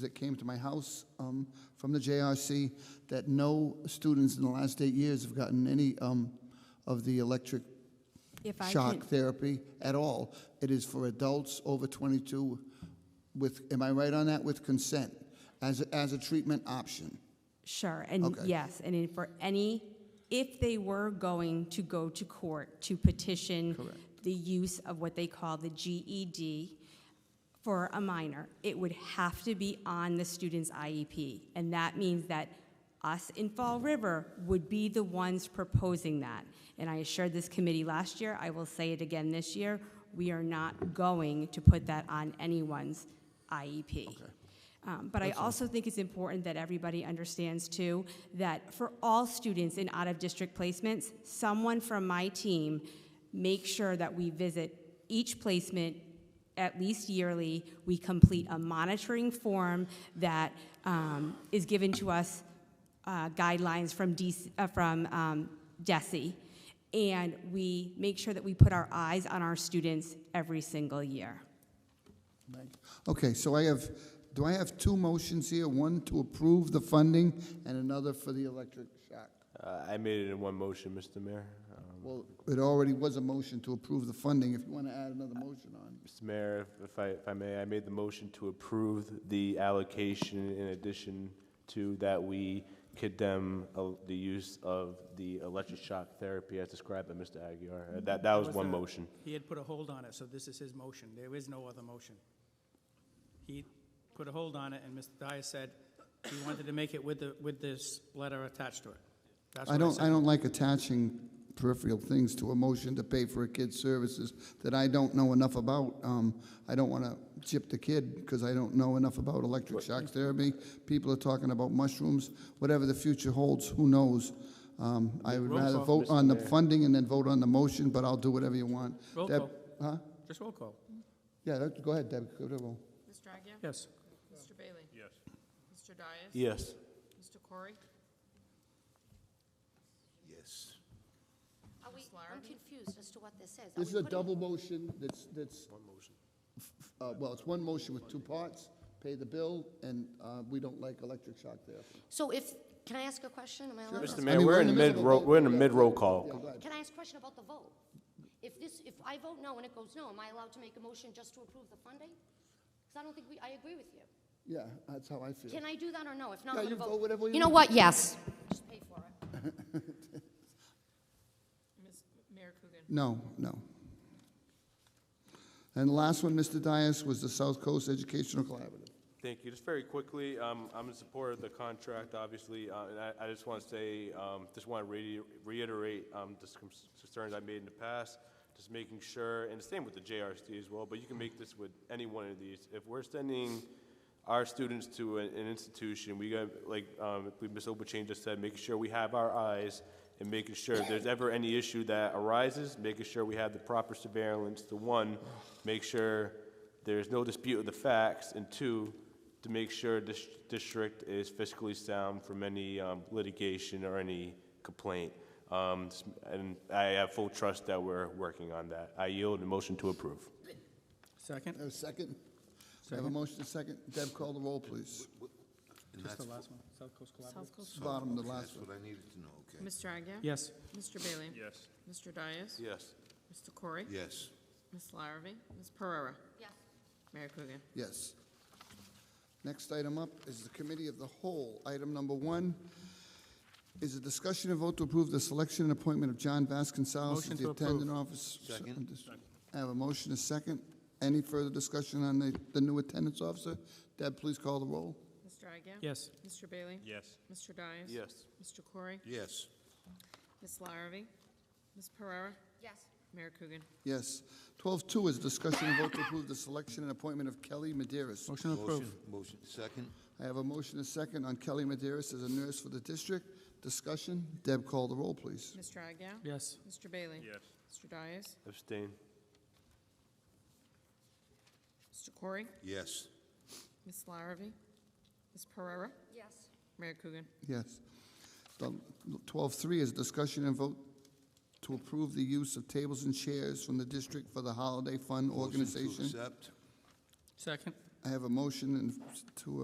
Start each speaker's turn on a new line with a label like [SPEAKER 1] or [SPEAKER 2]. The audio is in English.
[SPEAKER 1] that came to my house um, from the JRC that no students in the last eight years have gotten any um, of the electric
[SPEAKER 2] If I can,
[SPEAKER 1] shock therapy at all. It is for adults over 22 with, am I right on that, with consent, as, a- as a treatment option.
[SPEAKER 2] sure, and
[SPEAKER 1] Okay.
[SPEAKER 2] yes, and then for any, if they were going to go to court to petition
[SPEAKER 1] Correct.
[SPEAKER 2] the use of what they call the E GED for a minor, it would have to be on the student's IEP. And that means that us in Fall River would be the ones proposing that. And I assured this committee last year, I will say it again this year, we are not going to put that on anyone's IEP. Um, But I also think it's important that everybody understands too, that for all students in out-of-district placements, someone from my team make sure that we visit each placement at least yearly. We complete a monitoring form that um, is given to us uh, guidelines from DC, uh, from um, DESE. And we make sure that we put our eyes on our students every single year.
[SPEAKER 1] Okay, so I have, do I have two motions here? One to approve the funding and another for the electric shock.
[SPEAKER 3] Uh, I made it in one motion, Mr. Mayor. Um,
[SPEAKER 1] Well, it already was a motion to approve the funding, if you want to add another motion on.
[SPEAKER 3] Mr. Mayor, if- if I, if I may, I made the motion to approve the allocation in addition to that we condemn uh, the use of the electric shock therapy as described by Mr. Aguirre. Uh, That, that was
[SPEAKER 4] Was
[SPEAKER 3] one
[SPEAKER 4] the-
[SPEAKER 3] motion.
[SPEAKER 4] He had put a hold on it, so this is his motion. There is no other motion. He put a hold on it, and Mr. Dyer said he wanted to make it with the, with this letter attached to it. That's
[SPEAKER 1] I
[SPEAKER 4] what
[SPEAKER 1] don't, I
[SPEAKER 4] said.
[SPEAKER 1] don't like attaching peripheral things to a motion to pay for a kid's services that I don't know enough about. Um, I don't want to chip the kid because I don't know enough about electric shock therapy. People are talking about mushrooms, whatever the future holds, who knows? Um, I would
[SPEAKER 4] Roll
[SPEAKER 1] rather
[SPEAKER 4] call,
[SPEAKER 1] vote
[SPEAKER 3] Mr.
[SPEAKER 1] on the
[SPEAKER 3] Mayor.
[SPEAKER 1] funding and then vote on the motion, but I'll do whatever you want.
[SPEAKER 4] Roll
[SPEAKER 1] Deb-
[SPEAKER 4] call.
[SPEAKER 1] Huh?
[SPEAKER 4] Just roll call.
[SPEAKER 1] Yeah, that- go ahead, Deb, go to roll.
[SPEAKER 5] Mr. Agia?
[SPEAKER 4] Yes.
[SPEAKER 5] Mr. Bailey? Yes. Mr. Dias?
[SPEAKER 3] Yes.
[SPEAKER 5] Mr. Corey?
[SPEAKER 6] Are we,
[SPEAKER 5] Ms.
[SPEAKER 6] I'm
[SPEAKER 5] Larrabee?
[SPEAKER 6] confused as to what this is. Are
[SPEAKER 1] This
[SPEAKER 6] we
[SPEAKER 1] is a
[SPEAKER 6] putting-
[SPEAKER 1] double motion that's, that's. One motion. Well, it's one motion with two parts, pay the bill, and uh, we don't like electric shock therapy.
[SPEAKER 6] So if, can I ask a question? Am I allowed?
[SPEAKER 3] Mr.
[SPEAKER 6] to-
[SPEAKER 3] Mayor, we're in the
[SPEAKER 1] middle of
[SPEAKER 3] mid-roll,
[SPEAKER 1] vote.
[SPEAKER 3] we're in the
[SPEAKER 1] Yeah.
[SPEAKER 3] mid-roll call.
[SPEAKER 1] Yeah, go ahead.
[SPEAKER 6] Can I ask a question about the vote? If this, if I vote no and it goes no, am I allowed to make a motion just to approve the funding? Because I don't think we, I agree with you.
[SPEAKER 1] Yeah, that's how I feel.
[SPEAKER 6] Can I do that or no? If not,
[SPEAKER 1] Yeah,
[SPEAKER 6] I'm
[SPEAKER 1] you
[SPEAKER 6] going to vote.
[SPEAKER 1] vote whatever you
[SPEAKER 6] know
[SPEAKER 1] want.
[SPEAKER 6] what? Yes. Just pay for it.
[SPEAKER 5] Ms. Mayor Coogan?
[SPEAKER 1] No, no. And the last one, Mr. Dias, was the South Coast Educational Collaborative.
[SPEAKER 3] Thank you. Just very quickly, um, I'm in support of the contract, obviously, uh, and I, I just want to say, um, just want to reiterate, um, the con- concerns I made in the past, just making sure, and the same with the JRC as well, but you can make this with any one of these. If we're sending our students to an, an institution, we got, like, um, we- Ms. Obuchain just said, making sure we have our eyes and making sure if there's ever any issue that arises, making sure we have the proper surveillance to, one, make sure there's no dispute of the facts, and two, to make sure this district is fiscally sound from any um, litigation or any complaint. Um, s- And I have full trust that we're working on that. I yield a motion to approve.
[SPEAKER 4] Second?
[SPEAKER 1] Have a second? We Have a motion, a second? Deb, call the roll, please.
[SPEAKER 4] Just the last one. South Coast Collaborative.
[SPEAKER 5] South Coast?
[SPEAKER 1] Bottom, the last
[SPEAKER 7] That's
[SPEAKER 1] one.
[SPEAKER 7] what I needed to know, okay?
[SPEAKER 5] Mr. Agia?
[SPEAKER 4] Yes.
[SPEAKER 5] Mr. Bailey? Yes. Mr. Dias?
[SPEAKER 3] Yes.
[SPEAKER 5] Mr. Corey?
[SPEAKER 7] Yes.
[SPEAKER 5] Ms. Larrabee? Ms. Pereira?
[SPEAKER 6] Yes.
[SPEAKER 5] Mayor Coogan?
[SPEAKER 1] Yes. Next item up is the Committee of the Whole. Item number one is a discussion and vote to approve the selection and appointment of John Vasconcelos
[SPEAKER 4] Motion
[SPEAKER 1] as the
[SPEAKER 4] to approve.
[SPEAKER 1] attendant office.
[SPEAKER 7] Second.
[SPEAKER 1] I have a motion, a second. Any further discussion on the, the new attendance officer? Deb, please call the roll.
[SPEAKER 5] Mr. Agia?
[SPEAKER 4] Yes.
[SPEAKER 5] Mr. Bailey?
[SPEAKER 3] Yes.
[SPEAKER 5] Mr. Dias?
[SPEAKER 3] Yes.
[SPEAKER 5] Mr. Corey?
[SPEAKER 7] Yes.
[SPEAKER 5] Ms. Larrabee? Ms. Pereira?
[SPEAKER 6] Yes.
[SPEAKER 5] Mayor Coogan?
[SPEAKER 1] Yes. Twelve two is a discussion and vote to approve the selection and appointment of Kelly Maderas.
[SPEAKER 4] Motion to approve.
[SPEAKER 7] Motion- Motion, second?
[SPEAKER 1] I have a motion, a second on Kelly Maderas as a nurse for the district. Discussion. Deb, call the roll, please.
[SPEAKER 5] Mr. Agia?
[SPEAKER 4] Yes.
[SPEAKER 5] Mr. Bailey? Yes. Mr. Dias?
[SPEAKER 3] Abstain.
[SPEAKER 5] Mr. Corey?
[SPEAKER 7] Yes.
[SPEAKER 5] Ms. Larrabee? Ms. Pereira?
[SPEAKER 6] Yes.
[SPEAKER 5] Mayor Coogan?
[SPEAKER 1] Yes. The- 12.3 is discussion and vote to approve the use of tables and chairs from the district for the Holiday Fund
[SPEAKER 7] Motion to
[SPEAKER 1] Organization.
[SPEAKER 7] accept?
[SPEAKER 4] Second?
[SPEAKER 1] I have a motion and to